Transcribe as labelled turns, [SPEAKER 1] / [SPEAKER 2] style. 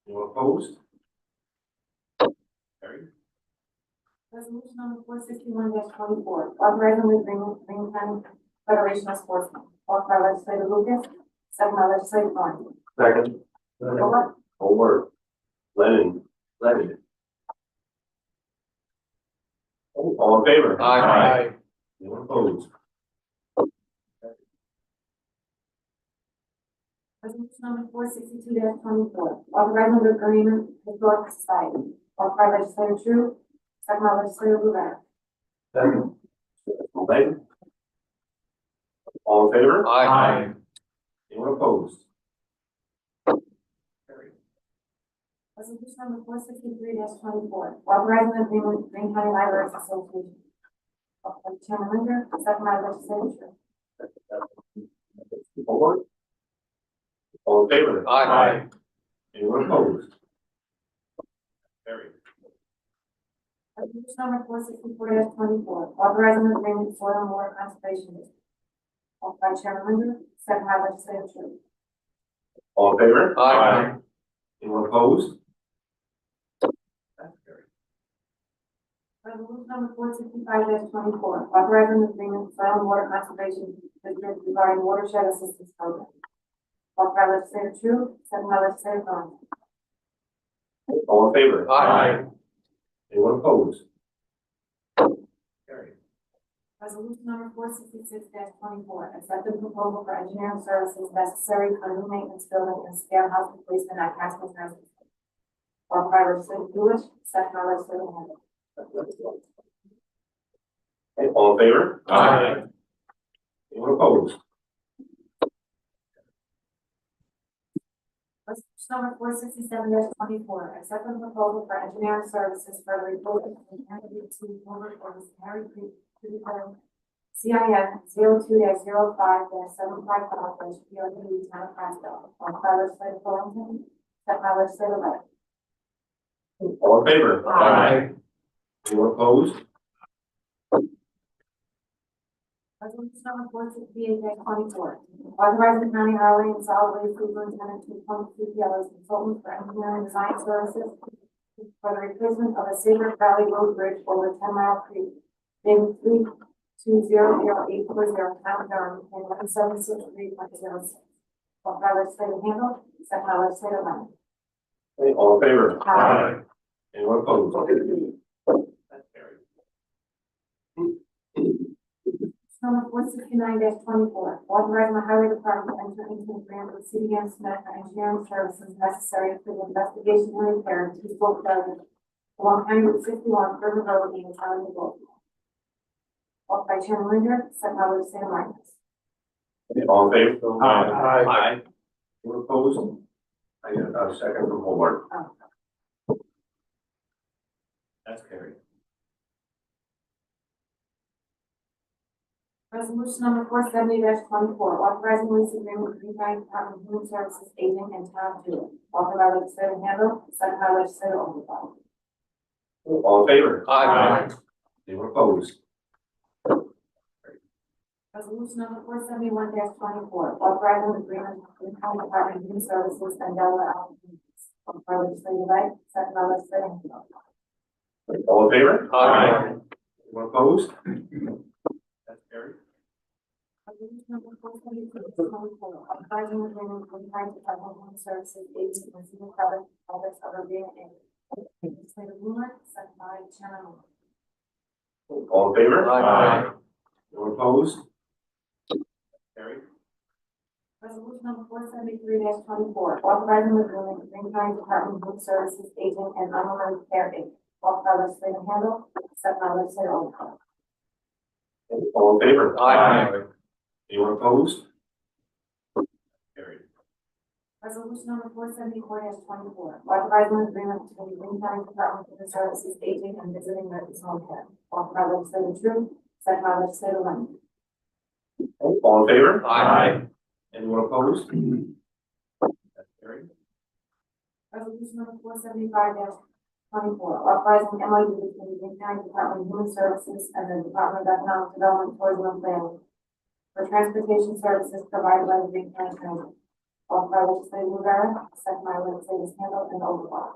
[SPEAKER 1] Opposed? Carried.
[SPEAKER 2] Resolution number four sixty-one twenty-four, authorizing the agreement between Green County Federation of Sports, offered by legislator Lucas, second by legislator Thorn.
[SPEAKER 3] Second.
[SPEAKER 2] Bullock,
[SPEAKER 3] Over. Lennon. Lennon.
[SPEAKER 1] Oh, All in favor?
[SPEAKER 3] Aye.
[SPEAKER 1] Anyone opposed?
[SPEAKER 2] resolution number four sixty-two twenty-four, authorizing the agreement with Historic Society, offered by legislator Tru, second by legislator Rivera.
[SPEAKER 3] Second.
[SPEAKER 1] All in favor? All in favor?
[SPEAKER 3] Aye.
[SPEAKER 1] Anyone opposed? Carried.
[SPEAKER 2] Resolution number four sixty-three twenty-four, authorizing the agreement with Green County Libraries Association, offered by Chairman Linder, second by legislator Tru.
[SPEAKER 1] Over. All in favor?
[SPEAKER 3] Aye.
[SPEAKER 1] Anyone opposed? Carried.
[SPEAKER 2] Resolution number four sixty-four twenty-four, authorizing the agreement with soil and water conservation. District. Offered by Chairman Linder, second by legislator Tru.
[SPEAKER 1] All in favor?
[SPEAKER 3] Aye.
[SPEAKER 1] Anyone opposed? That's carried.
[SPEAKER 2] Resolution number four sixty-five twenty-four, authorizing the agreement with soil and water conservation district regarding watershed assistance program. Offered by legislator Tru, second by legislator Thorn.
[SPEAKER 1] All in favor?
[SPEAKER 3] Aye.
[SPEAKER 1] Anyone opposed? Carried.
[SPEAKER 2] Resolution number four sixty-six twenty-four, accepted proposal for engineering services necessary for new maintenance building and scale house replacement at Castle Township. Offered by legislator Lewis, second by legislator Handle.
[SPEAKER 1] Okay, all in favor?
[SPEAKER 3] Aye.
[SPEAKER 1] Anyone opposed?
[SPEAKER 2] Resolution number four sixty-seven twenty-four, accept the proposal for engineering services for the replacement of the Kennedy T. Woodward or Miss Harry Creek to be done. C I N zero two dash zero five dash seven five five dash P O D town of Pasco, on by legislator Thornton, second by legislator Wright.
[SPEAKER 1] All in favor? Anyone opposed?
[SPEAKER 2] Resolution number four sixty-eight twenty-four, authorizing the county highway and solid waste superintendent to appoint C P L as consultant for engineering design services for the replacement of a Saber Valley Road Bridge over Ten Mile Creek, in three two zero zero eight four zero Town Durham, and one seven six three point zero six. Offered by legislator Handle, second by legislator Lemon.
[SPEAKER 1] Okay, all in favor?
[SPEAKER 2] Aye.
[SPEAKER 1] Anyone opposed? That's carried.
[SPEAKER 2] Resolution Number four sixty-nine twenty-four, authorizing the highway department to enter into a grant with C D M Smith for engineering services necessary for the investigation and repair of East Fork Road along County Route sixty-one, River Road, in the town of Baltimore. Offered by Chairman Linder, second by legislator Martinez.
[SPEAKER 1] Okay, all in favor? Aye.
[SPEAKER 3] Aye.
[SPEAKER 1] Anyone opposed? I get a second from Hobart.
[SPEAKER 2] Oh.
[SPEAKER 1] That's carried.
[SPEAKER 2] Resolution number four seventy twenty-four, authorizing lease agreement between Green County Department of Human Services, Aging and Town Dooley. Offered by legislator Handle, second by legislator Overbaugh.
[SPEAKER 1] All in favor?
[SPEAKER 3] Aye.
[SPEAKER 1] Anyone opposed?
[SPEAKER 2] Resolution number four seventy-one twenty-four, authorizing agreement between County Department of Human Services and Delaware Allen Communities. Offered by legislator Wright, second by legislator Handle.
[SPEAKER 1] Okay, All in favor?
[SPEAKER 3] Aye.
[SPEAKER 1] Anyone opposed? That's carried.
[SPEAKER 2] Resolution number four seventy-two twenty-four, authorizing agreement between County Department of Human Services, agency and civil product, products of Urbana Inc. Legislator Blumer, second by Chairman Linder.
[SPEAKER 1] All in favor?
[SPEAKER 3] Aye.
[SPEAKER 1] Anyone opposed? Carried.
[SPEAKER 2] Resolution number four seventy-three twenty-four, authorizing the agreement between County Department of Human Services, Aging and Unrelated Care Inc. Offered by legislator Handle, second by legislator Overbaugh.
[SPEAKER 1] All in favor?
[SPEAKER 3] Aye.
[SPEAKER 1] Anyone opposed? Carried.
[SPEAKER 2] Resolution number four seventy-four twenty-four, authorizing agreement between Green County Department of Human Services Aging and Visiting Nurses Home Care, offered by legislator Tru, second by legislator Lemon.
[SPEAKER 1] All in favor?
[SPEAKER 3] Aye.
[SPEAKER 1] Anyone opposed? That's carried.
[SPEAKER 2] Resolution number four seventy-five twenty-four, authorizing MOU between Green County Department of Human Services and the Department of Economic Development, Tourism and Planning for transportation services provided by the Green County Transit, Offered by legislator Rivera, second by legislators Handle and Overbaugh.